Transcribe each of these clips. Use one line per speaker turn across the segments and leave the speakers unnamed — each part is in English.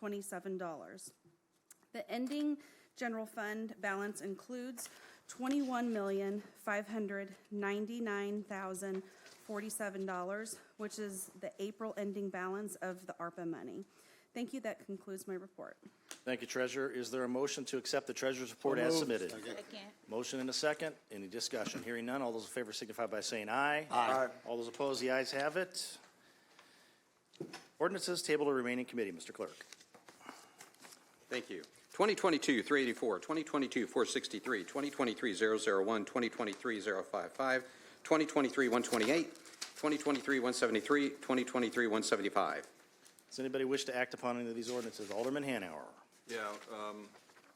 $67,056,027. The ending general fund balance includes $21,599,047, which is the April ending balance of the ARPA money. Thank you, that concludes my report.
Thank you, Treasurer. Is there a motion to accept the Treasurer's report as submitted?
Second.
Motion and a second. Any discussion? Hearing none. All those in favor signify by saying aye. Aye. All those opposed, the ayes have it. Ordinances tabled to remaining committee, Mr. Clerk.
Thank you. 2022-384, 2022-463, 2023-001, 2023-055, 2023-128, 2023-173, 2023-175.
Does anybody wish to act upon any of these ordinances? Alderman Hanauer.
Yeah, um,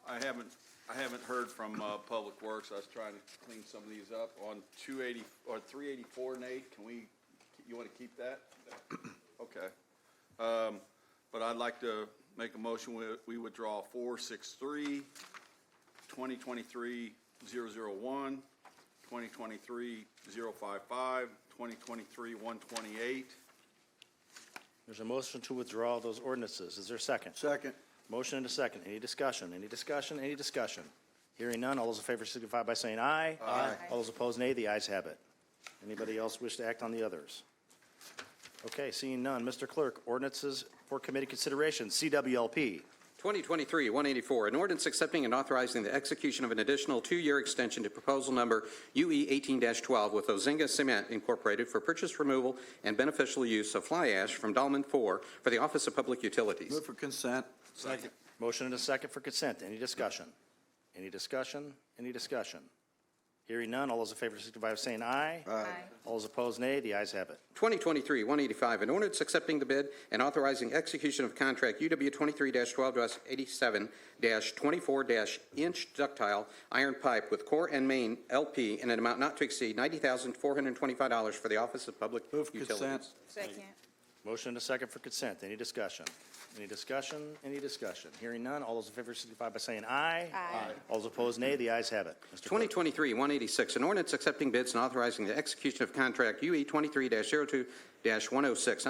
I haven't, I haven't heard from, uh, Public Works. I was trying to clean some of these up on two eighty, or three eighty-four, Nate, can we, you wanna keep that? Okay. Um, but I'd like to make a motion, we, we withdraw four six three, twenty twenty-three zero zero one, twenty twenty-three zero five five, twenty twenty-three one twenty-eight.
There's a motion to withdraw those ordinances. Is there a second?
Second.
Motion and a second. Any discussion? Any discussion? Any discussion? Hearing none. All those in favor signify by saying aye. Aye. All those opposed, nay. The ayes have it. Anybody else wish to act on the others? Okay, seeing none. Mr. Clerk, ordinances for committee consideration, CWLP.
2023-184, an ordinance accepting and authorizing the execution of an additional two-year extension to proposal number E UE 18-12 with Ozinga Cement Incorporated for purchase, removal, and beneficial use of fly ash from Dolman 4 for the Office of Public Utilities.
Move for consent.
Second.
Motion and a second for consent. Any discussion? Any discussion? Any discussion? Hearing none. All those in favor signify by saying aye. Aye. All those opposed, nay. The ayes have it.
2023-185, an ordinance accepting the bid and authorizing execution of contract UW 23-12-87-24-inch ductile iron pipe with Core and Main LP in an amount not to exceed $90,425 for the Office of Public
Move for consent.
Utilities.
Second.
Motion and a second for consent. Any discussion? Any discussion? Any discussion? Hearing none. All those in favor signify by saying aye. Aye. All those opposed, nay. The ayes have it. Mr. Clerk.
2023-186, an ordinance accepting bids and authorizing the execution of contract E UE 23-02-106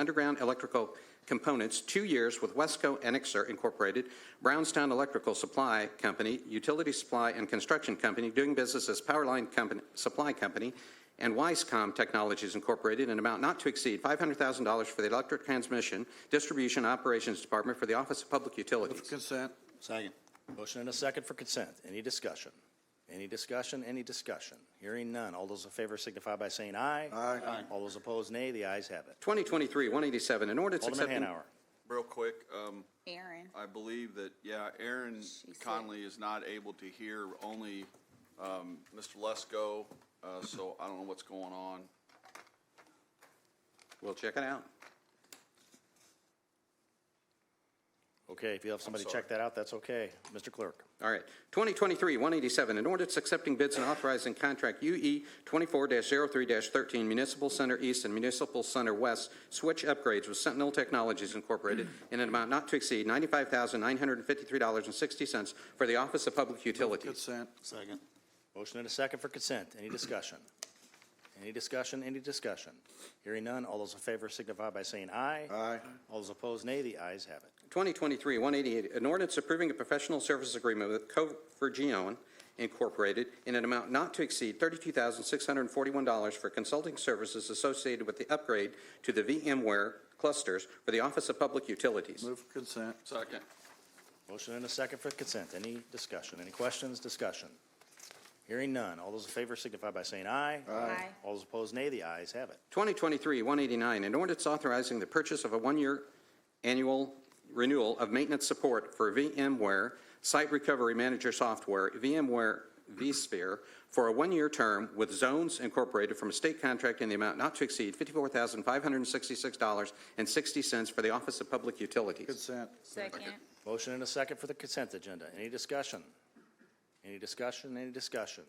Underground Electrical Components, two years with Wesco Enixer Incorporated, Brownstown Electrical Supply Company, Utility Supply and Construction Company, doing business as Powerline Company- Supply Company, and Wisecom Technologies Incorporated, in an amount not to exceed $500,000 for the Electric Transmission Distribution Operations Department for the Office of Public Utilities.
Move for consent.
Second. Motion and a second for consent. Any discussion? Any discussion? Any discussion? Hearing none. All those in favor signify by saying aye. Aye. All those opposed, nay. The ayes have it.
2023-187, an ordinance
Alderman
accepting...
Hanauer.
Real quick, um,
Aaron.
I believe that, yeah, Aaron
She said-
Conley is not able to hear, only um, Mr. Lesko, uh, so I don't know what's going on.
We'll check it out.
Okay, if you have somebody check that out, that's okay. Mr. Clerk.
All right. 2023-187, an ordinance accepting bids and authorizing contract E UE 24-03-13 Municipal Center East and Municipal Center West switch upgrades with Sentinel Technologies Incorporated in an amount not to exceed $95,953.60 for the Office of Public Utilities.
Consent.
Second. Motion and a second for consent. Any discussion? Any discussion? Any discussion? Hearing none. All those in favor signify by saying aye.
Aye.
All those opposed, nay. The ayes have it.
2023-188, an ordinance approving a professional services agreement with Covergion Incorporated in an amount not to exceed $32,641 for consulting services associated with the upgrade to the VMware clusters for the Office of Public Utilities.
Move for consent.
Second.
Motion and a second for consent. Any discussion? Any questions? Discussion? Hearing none. All those in favor signify by saying aye.
Aye.
All those opposed, nay. The ayes have it.
2023-189, an ordinance authorizing the purchase of a one-year annual renewal of maintenance support for VMware Site Recovery Manager Software, VMware vSphere, for a one-year term with Zones Incorporated from a state contract in the amount not to exceed $54,566.60 for the Office of Public Utilities.
Consent.
Second.
Motion and a second for the consent agenda. Any discussion? Any discussion? Any discussion?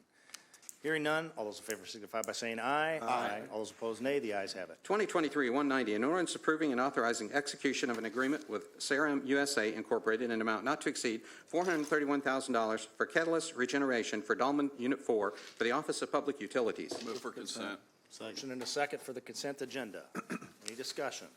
Hearing none. All those in favor signify by saying aye. Aye. All those opposed, nay. The ayes have it.
2023-190, an ordinance approving and authorizing execution of an agreement with Serum USA Incorporated in an amount not to exceed $431,000 for catalyst regeneration for Dolman Unit 4 for the Office of Public Utilities.
Move for consent.
Motion and a second for the consent agenda. Any discussion?